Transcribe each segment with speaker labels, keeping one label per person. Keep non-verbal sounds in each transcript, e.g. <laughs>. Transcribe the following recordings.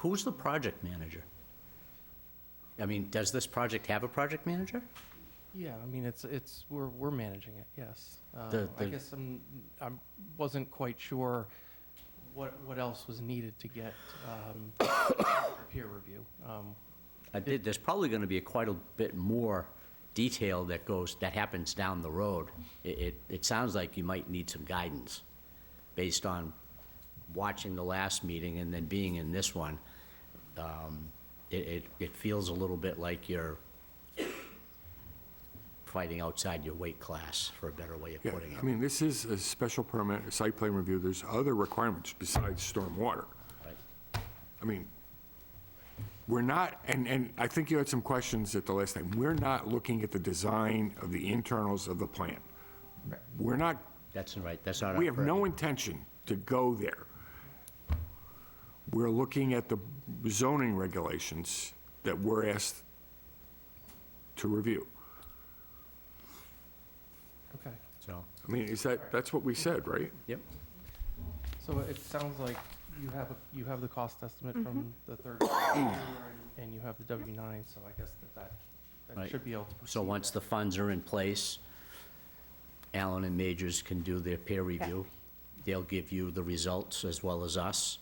Speaker 1: Who's the project manager? I mean, does this project have a project manager?
Speaker 2: Yeah, I mean, it's, it's, we're, we're managing it, yes. Uh,
Speaker 1: The-
Speaker 2: I
Speaker 1: the-
Speaker 2: guess I'm, I wasn't quite sure what, what else was needed to get um, <coughs> peer review. Um,
Speaker 1: I did, there's probably gonna be quite a bit more detail that goes, that happens down the road. It, it, it sounds like you might need some guidance based on watching the last meeting and then being in this one. Um, It, it, it feels a little bit like you're fighting outside your weight class, for a better way of
Speaker 3: Yeah,
Speaker 1: putting
Speaker 3: I
Speaker 1: it.
Speaker 3: mean, this is a special permit, a site plan review, there's other requirements besides stormwater.
Speaker 1: Right.
Speaker 3: I mean, we're not, and, and I think you had some questions at the last time, we're not looking at the design of the internals of the plant. We're not,
Speaker 1: That's right, that's not our
Speaker 3: we have no
Speaker 1: purview.
Speaker 3: intention to go there. We're looking at the zoning regulations that we're asked to review.
Speaker 2: Okay,
Speaker 1: So,
Speaker 3: I mean, is that, that's what we said, right?
Speaker 1: yep.
Speaker 2: so it sounds like you have, a- you have the cost estimate from the third, <coughs> quarter and you have the W-9, so I guess that that, that
Speaker 1: Right.
Speaker 2: should be able to proceed.
Speaker 1: So once the funds are in place, Allen and Majors can do their peer review. They'll give you the results as well as us,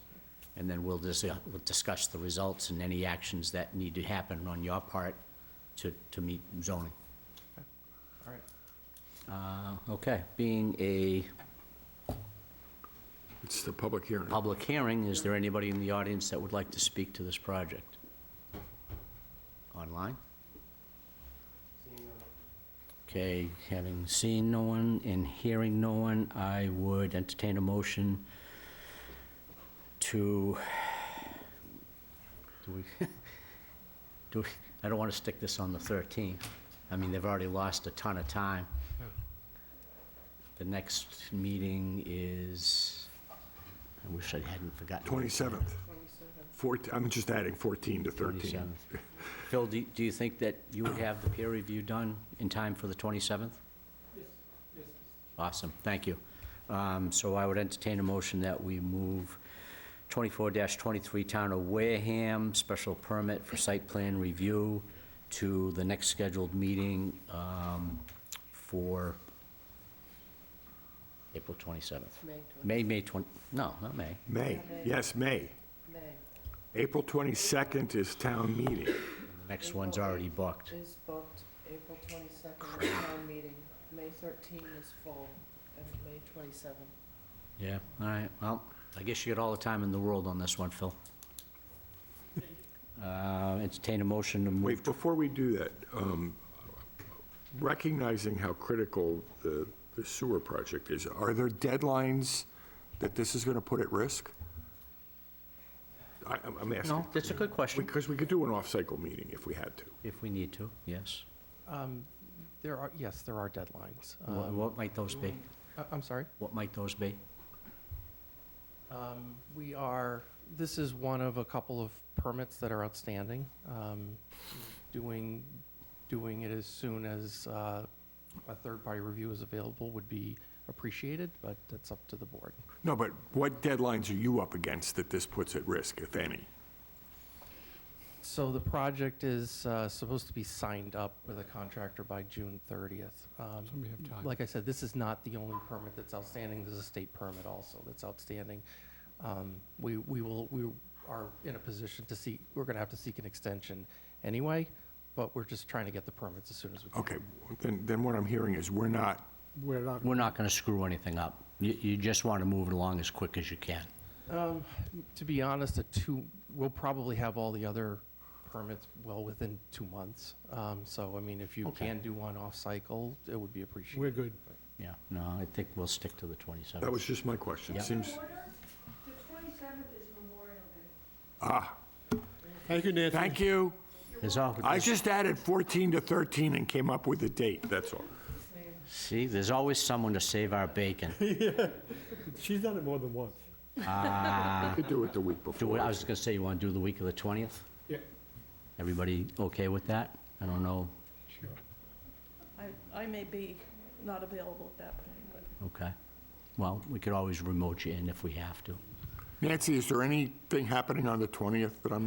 Speaker 1: and then we'll dis- we'll discuss the results and any actions that need to happen on your part to, to meet zoning.
Speaker 2: All right.
Speaker 1: Uh, Okay, being a
Speaker 3: It's the public hearing.
Speaker 1: public hearing, is there anybody in the audience that would like to speak to this project? Online? Okay, having seen no one and hearing no one, I would entertain a motion to, do we, <laughs> do we, I don't want to stick this on the 13th. I mean, they've already lost a ton of time. The next meeting is, I wish I hadn't forgotten.
Speaker 3: 27th. 14, I'm just adding 14 to 13.
Speaker 1: 27th. Phil, do do you think that you would have the peer review done in time for the 27th? Awesome, thank you. Um, So I would entertain a motion that we move 24-23 Town of Wareham, special permit for site plan review to the next scheduled meeting um, for April 27th. May, May 20, no, not May.
Speaker 3: May, yes, May.
Speaker 4: May
Speaker 3: April 22nd is town meeting.
Speaker 1: The next one's already booked.
Speaker 4: is booked, April twenty-second is town meeting, May thirteen is full, and May twenty-seven.
Speaker 1: Yeah, all right, well, I guess you got all the time in the world on this one, <laughs> Phil. Uh, Entertain a motion to move,
Speaker 3: Wait, before we do that, um, recognizing how critical the the sewer project is, are there deadlines that this is going to put at risk? I- I'm I'm asking.
Speaker 1: no, that's a good question,
Speaker 3: Because we could do an off-cycle meeting if we had to.
Speaker 1: if we need to, yes.
Speaker 2: Um, There are, yes, there are deadlines.
Speaker 1: Wha-
Speaker 2: Um,
Speaker 1: What might those be?
Speaker 2: I- I'm sorry?
Speaker 1: What might those be?
Speaker 2: Um, We are, this is one of a couple of permits that are outstanding. Um, Doing, doing it as soon as uh, a third-party review is available would be appreciated, but that's up to the board.
Speaker 3: No, but what deadlines are you up against that this puts at risk, if any?
Speaker 2: So the project is uh, supposed to be signed up with a contractor by June 30th. Um, Like I said, this is not the only permit that's outstanding, there's a state permit also that's outstanding. Um, We, we will, we are in a position to seek, we're going to have to seek an extension anyway, but we're just trying to get the permits as soon as we can.
Speaker 3: Okay, then then what I'm hearing is we're not
Speaker 5: We're not,
Speaker 1: We're not gonna screw anything up. You, you just wanna move it along as quick as you can.
Speaker 2: Um, To be honest, a two, we'll probably have all the other permits well within two months. Um, So, I mean, if you
Speaker 1: Okay.
Speaker 2: can do one off-cycle, it would be appreciated.
Speaker 5: we're good.
Speaker 1: Yeah, no, I think we'll stick to the
Speaker 3: That
Speaker 1: 27th.
Speaker 3: was just my question.
Speaker 1: Yeah.
Speaker 3: It seems,
Speaker 6: The twenty-seventh is Memorial Day.
Speaker 3: ah,
Speaker 5: Thank you, Nancy.
Speaker 3: thank you.
Speaker 1: There's al-
Speaker 3: I just added 14 to 13 and came up with a date, that's all.
Speaker 1: See, there's always someone to save our <laughs> bacon.
Speaker 5: She's done it more than once.
Speaker 3: You could do it the week
Speaker 1: Do, we- I
Speaker 3: before.
Speaker 1: was gonna say, you wanna do the week of the 20th?
Speaker 5: Yeah.
Speaker 1: Everybody okay with that? I don't know,
Speaker 7: I, I may be not available at that point, but
Speaker 1: Okay. Well, we could always remote you in if we have to.
Speaker 3: Nancy, is there anything happening on the 20th that I'm not